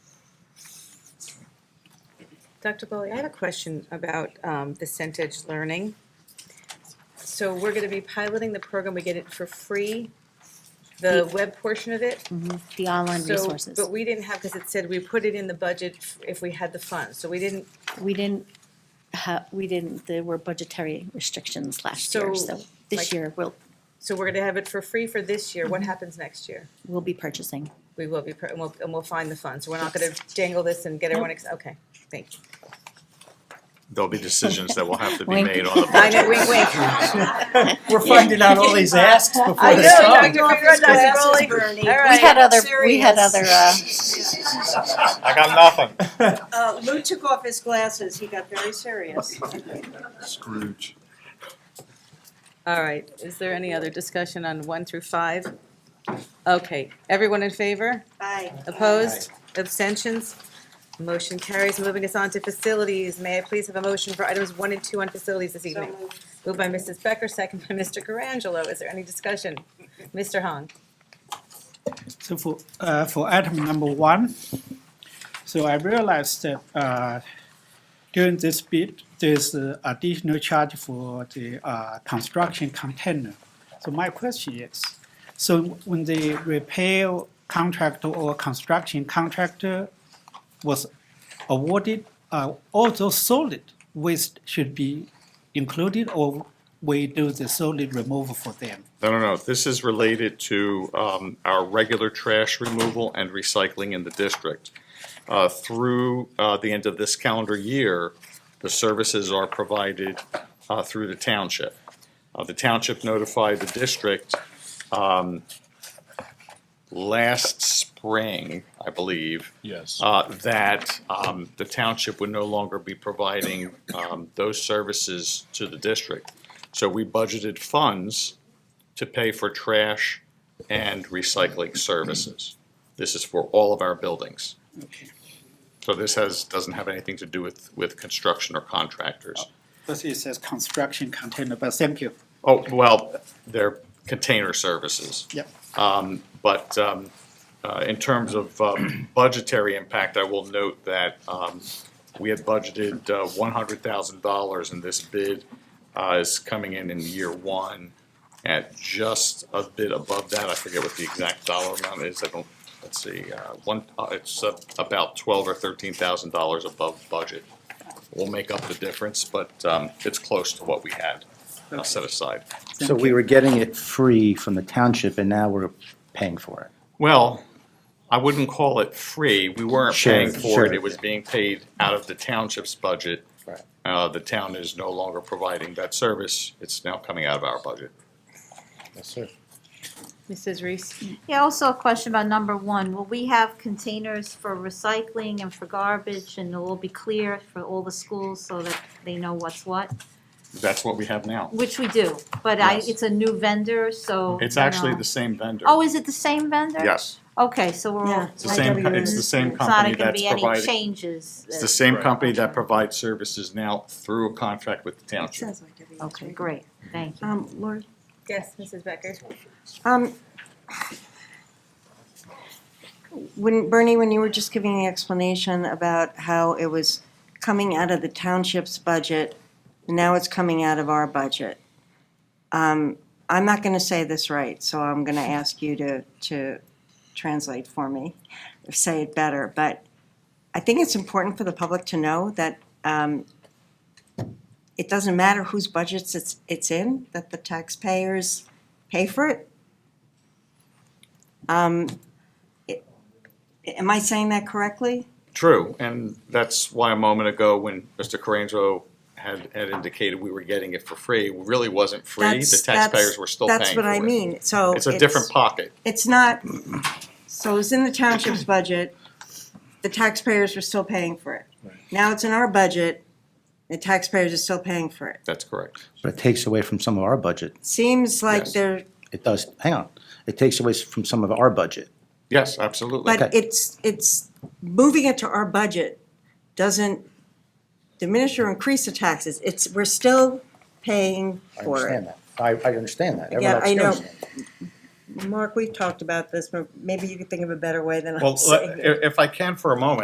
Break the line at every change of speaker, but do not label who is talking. Dr. Bowley, I have a question about um, the Centage Learning. So we're going to be piloting the program, we get it for free, the
The-
web portion of it.
the online
So-
resources.
But we didn't have, because it said we put it in the budget f- if we had the funds, so we didn't,
We didn't have, we didn't, there were budgetary restrictions last year,
So,
so this
like-
year we'll,
so we're going to have it for free for this year, what happens next year?
we'll be purchasing.
We will be, pr- and we'll, and we'll find the funds, so we're not going to dangle this and get everyone, ex- okay, thank you.
There'll be decisions that will have to be
Wink.
made on the
I
budget.
know, wink, wink.
We're finding out all these asks
I
before
know,
they come.
Dr. Figueroa, Dr. Rowley. All
We
right.
had other, we had other, uh,
I got nothing.
Uh, Lou took off his glasses, he got very serious.
Scrooge.
All right, is there any other discussion on one through five? Okay, everyone in favor?
Aye.
Opposed? Abstentions? Motion carries. Moving us on to facilities. May I please have a motion for items one and two on facilities this
So
evening?
moved.
Moved by Mrs. Becker, second by Mr. Carangelo. Is there any discussion? Mr. Hong?
So for, uh, for item number one, so I realized that, uh, during this bid, there's uh, additional charge for the, uh, construction container. So my question is, so when the repair contractor or construction contractor was awarded, uh, all those solid waste should be included or we do the solid removal for them?
No, no, no, this is related to um, our regular trash removal and recycling in the district. Uh, Through uh, the end of this calendar year, the services are provided uh, through the township. Uh, The township notified the district um, last spring, I believe,
Yes.
uh, that um, the township would no longer be providing um, those services to the district. So we budgeted funds to pay for trash and recycling services. This is for all of our buildings. So this has, doesn't have anything to do with, with construction or contractors.
Because it says construction container, but thank you.
Oh, well, they're container services.
Yep.
But um, uh, in terms of um, budgetary impact, I will note that um, we had budgeted uh, $100,000, and this bid uh, is coming in in year one at just a bit above that. I forget what the exact dollar amount is. I don't, let's see, uh, one, uh, it's uh, about $12,000 or $13,000 above budget. We'll make up the difference, but um, it's close to what we had uh, set aside.
So we were getting it free from the township, and now we're paying for it.
Well, I wouldn't call it free. We weren't
Sure,
paying for it.
sure.
It was being paid out of the township's budget.
Right.
Uh, the town is no longer providing that service. It's now coming out of our budget.
Yes, sir.
Mrs. Reese?
Yeah, also a question about number one, will we have containers for recycling and for garbage, and it will be clear for all the schools so that they know what's what?
That's what we have now.
Which we do, but I,
Yes.
it's a new vendor, so.
It's
you
actually
know.
the same vendor.
Oh, is it the same vendor?
Yes,
Okay, so we're
Yeah.
all.
it's the same, it's the same
It's not
company
gonna
that's
be any
providing,
changes.
it's the same company that provides services now through a contract with the township.
Okay, great, thank you.
Um, Lori?
Yes, Mrs. Becker?
Um, when, Bernie, when you were just giving the explanation about how it was coming out of the township's budget, now it's coming out of our budget. Um, I'm not gonna say this right, so I'm gonna ask you to, to translate for me, say it better, but I think it's important for the public to know that, um, it doesn't matter whose budgets it's, it's in, that the taxpayers pay for it. Um, it- Am I saying that correctly?
True, and that's why a moment ago when Mr. Carangelo had, had indicated we were getting it for free, it really wasn't free.
That's-
The
that's-
taxpayers were still paying for it.
That's what I mean, so.
It's a different pocket.
It's not, so it's in the township's budget, the taxpayers were still paying for it. Now it's in our budget, the taxpayers are still paying for it.
That's correct.
But it takes away from some of our budget.
Seems like
Yes.
they're,
It does, hang on, it takes away from some of our budget.
Yes, absolutely.
but it's, it's, moving it to our budget doesn't diminish or increase the taxes. It's, we're still paying
I
for it.
understand that. I, I understand that.
Yeah,
Everyone
I know.
understands that.
Mark, we've talked about this, but maybe you could think of a better way than
Well,
I'm
let-
saying it.
if, if I can for a moment,